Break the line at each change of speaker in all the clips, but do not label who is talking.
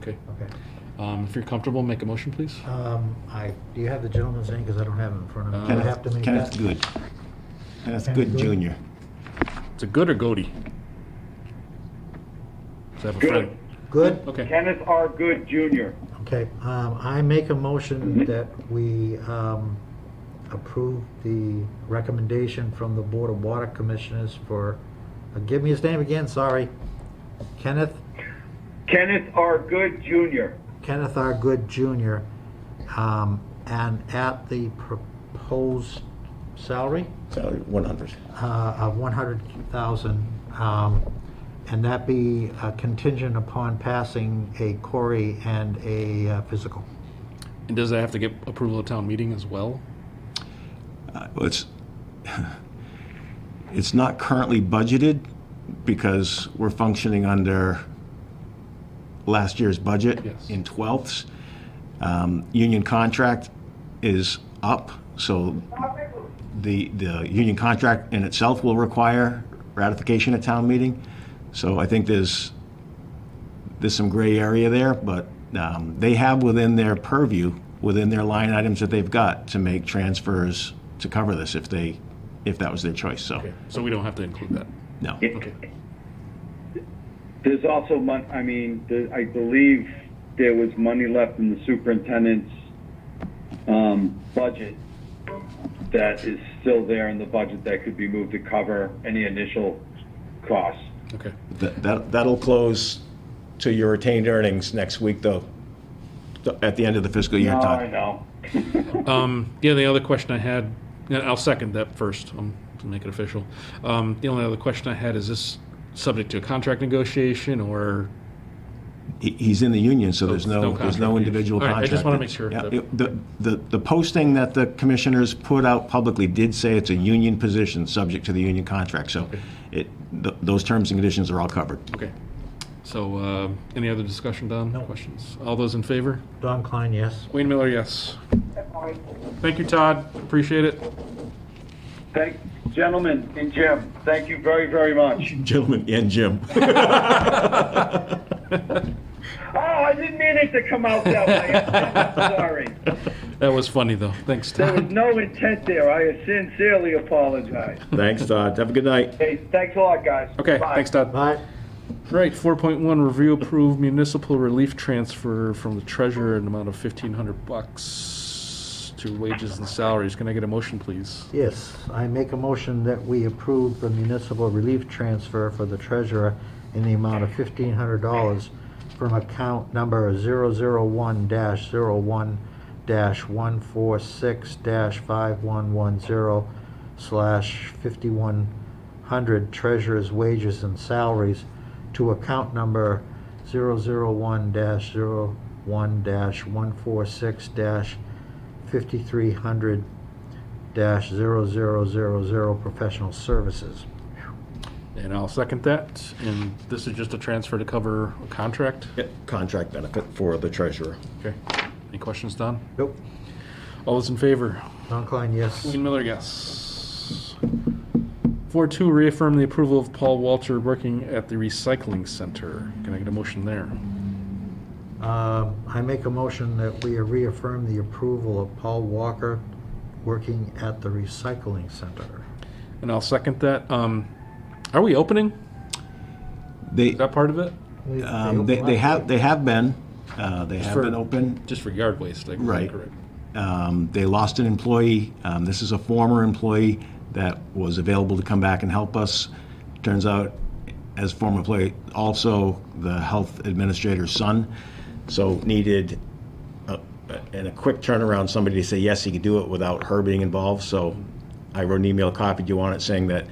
Okay.
Okay.
Um, If you're comfortable, make a motion, please.
Um, I, do you have the gentleman's name? Because I don't have it in front of me. Do I
Uh,
have to make
Kenneth
that?
Good. Kenneth
Kenneth
Good
Good.
Junior.
It's a good or goatee? Does that have a
Good.
friend?
Good?
Okay.
Kenneth R. Good Jr.
Okay, um, I make a motion that we, um, approve the recommendation from the Board of Water Commissioners for, uh, give me his name again, sorry. Kenneth,
Kenneth R. Good Jr.
Kenneth R. Good Jr., um, and at the proposed salary?
Salary one hundred.
uh, of 100,000, um, and that be uh, contingent upon passing a query and a uh, physical.
And does that have to get approval of town meeting as well?
Uh, well, It's, it's not currently budgeted because we're functioning under last year's budget
Yes.
in twelfths. Um, Union contract is up, so the, the union contract in itself will require ratification at town meeting. So I think there's, there's some gray area there, but um, they have within their purview, within their line items that they've got to make transfers to cover this if they, if that was their choice, so,
So we don't have to include that?
no.
It-
Okay.
There's also mon, I mean, the, I believe there was money left in the superintendent's, um, budget that is still there in the budget that could be moved to cover any initial costs.
Okay.
That, that- that'll close to your retained earnings next week, though, th- at the end of the fiscal year,
No, I
Todd.
know.
Um, yeah, the other question I had, and I'll second that first, um, to make it official. Um, the only other question I had, is this subject to a contract negotiation or,
He- He's in the union, so there's
No- no
no, there's no
contract.
individual
All right, I
contract.
just wanna make sure
Yeah,
that-
it- The, the, the posting that the commissioners put out publicly did say it's a union position, subject to the union contract, so it, th- those terms and conditions are all covered.
okay. So, uh, any other discussion, Don? No. Questions? All those in favor?
Don Klein, yes?
Wayne Miller, yes. Thank you, Todd. Appreciate it.
Thank, gentlemen and Jim, thank you very, very much.
Gentlemen and Jim.
Oh, I didn't mean it to come out that way. I'm sorry.
That was funny, though. Thanks,
There was
Todd.
no intent there. I sincerely apologize.
Thanks, Todd. Have a good night.
Hey, thanks a lot, guys.
Okay,
Bye.
thanks, Todd.
All right,
Right, four point one, review approved municipal relief transfer from the treasurer in the amount of fifteen hundred bucks to wages and salaries. Can I get a motion, please?
yes, I make a motion that we approve the municipal relief transfer for the treasurer in the amount of $1,500 from account number 001-01-146-5110 slash 5100 treasurer's wages and salaries to account number 001-01-146-5300 dash zero zero zero zero professional services.
And I'll second that. And this is just a transfer to cover a contract.
Contract benefit for the treasurer.
Okay. Any questions, Don?
Nope.
All those in favor?
Don Klein, yes.
Wayne Miller, yes. Four two, reaffirm the approval of Paul Walter working at the recycling center. Can I get a motion there?
Um, I make a motion that we reaffirm the approval of Paul Walker working at the recycling center.
And I'll second that. Um, are we opening?
They,
Is that part of it?
um, they, they have, they have been, uh, they have
For-
been open.
Just for yard waste, I
Right.
correct.
Um, They lost an employee. Um, This is a former employee that was available to come back and help us. Turns out, as former employee, also the health administrator's son, so needed, a- a- in a quick turnaround, somebody to say, yes, he could do it without her being involved. So I wrote an email, copied you on it, saying that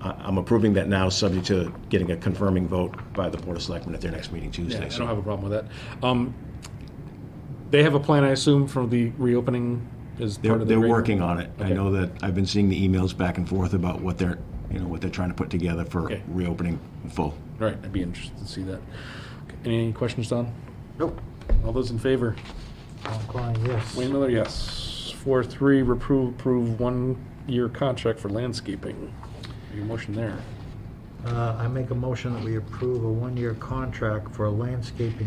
I- I'm approving that now, subject to getting a confirming vote by the Board of Selectmen at their next meeting
Yeah,
Tuesday.
I
So
don't have a problem with that. Um, they have a plan, I assume, for the reopening as
They're,
part of the.
they're
re-
working on it. I
Okay.
know that, I've been seeing the emails back and forth about what they're, you know, what they're trying to put together for
Okay.
reopening in full.
Right, I'd be interested to see that. Okay, Any questions, Don?
Nope.
All those in favor?
Don Klein, yes.
Wayne Miller, yes. Four, three, reprove, approve one-year contract for landscaping. Your motion there.
Uh, I make a motion that we approve a one-year contract for landscaping